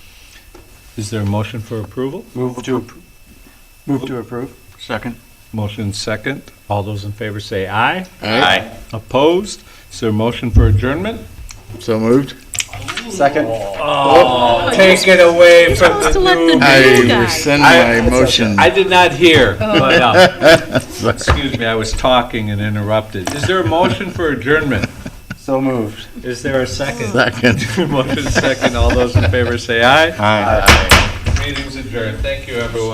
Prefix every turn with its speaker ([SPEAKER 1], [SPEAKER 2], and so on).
[SPEAKER 1] Is there a motion for approval?
[SPEAKER 2] Move to, appro- move to approve.
[SPEAKER 3] Second.
[SPEAKER 1] Motion second. All those in favor say aye.
[SPEAKER 3] Aye.
[SPEAKER 1] Opposed? Is there a motion for adjournment?
[SPEAKER 3] So moved.
[SPEAKER 2] Second.
[SPEAKER 1] Take it away
[SPEAKER 4] You're supposed to let the new
[SPEAKER 3] I
[SPEAKER 4] guy.
[SPEAKER 3] rescind
[SPEAKER 1] I-
[SPEAKER 3] my motion.
[SPEAKER 1] I did not hear,
[SPEAKER 4] Oh.
[SPEAKER 1] but, uh, excuse me, I was talking and interrupted. Is there a motion for adjournment?
[SPEAKER 2] So moved.
[SPEAKER 1] Is there a second?
[SPEAKER 3] Second.
[SPEAKER 1] Motion second. All those in favor say aye.
[SPEAKER 3] Aye.
[SPEAKER 1] Meeting's adjourned. Thank you, everyone.